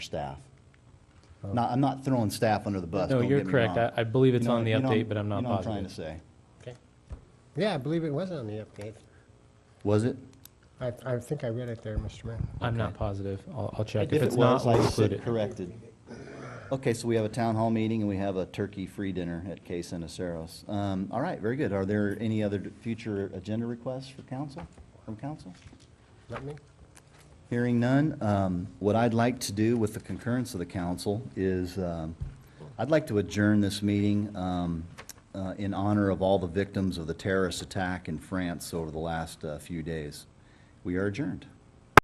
staff. Not, I'm not throwing staff under the bus, No, don't you're get me correct. wrong. I- I believe it's You know- on the you know- update, but I'm not You know what I'm trying to positive. say. Okay. Yeah, I believe it was on the update. Was it? I, I think I read it there, Mr. Mayor. I'm not positive. I'll, I'll check. If it it's not, was, we'll I include said it. Corrected. Okay, so we have a town hall meeting and we have a turkey free dinner at Case and Aceros. Um, all right, very good. Are there any other d- future agenda requests for council, from council? Not me? Hearing none, um, what I'd like to do with the concurrence of the council is, um, I'd like to adjourn this meeting um, uh, in honor of all the victims of the terrorist attack in France over the last uh, few days. We are adjourned.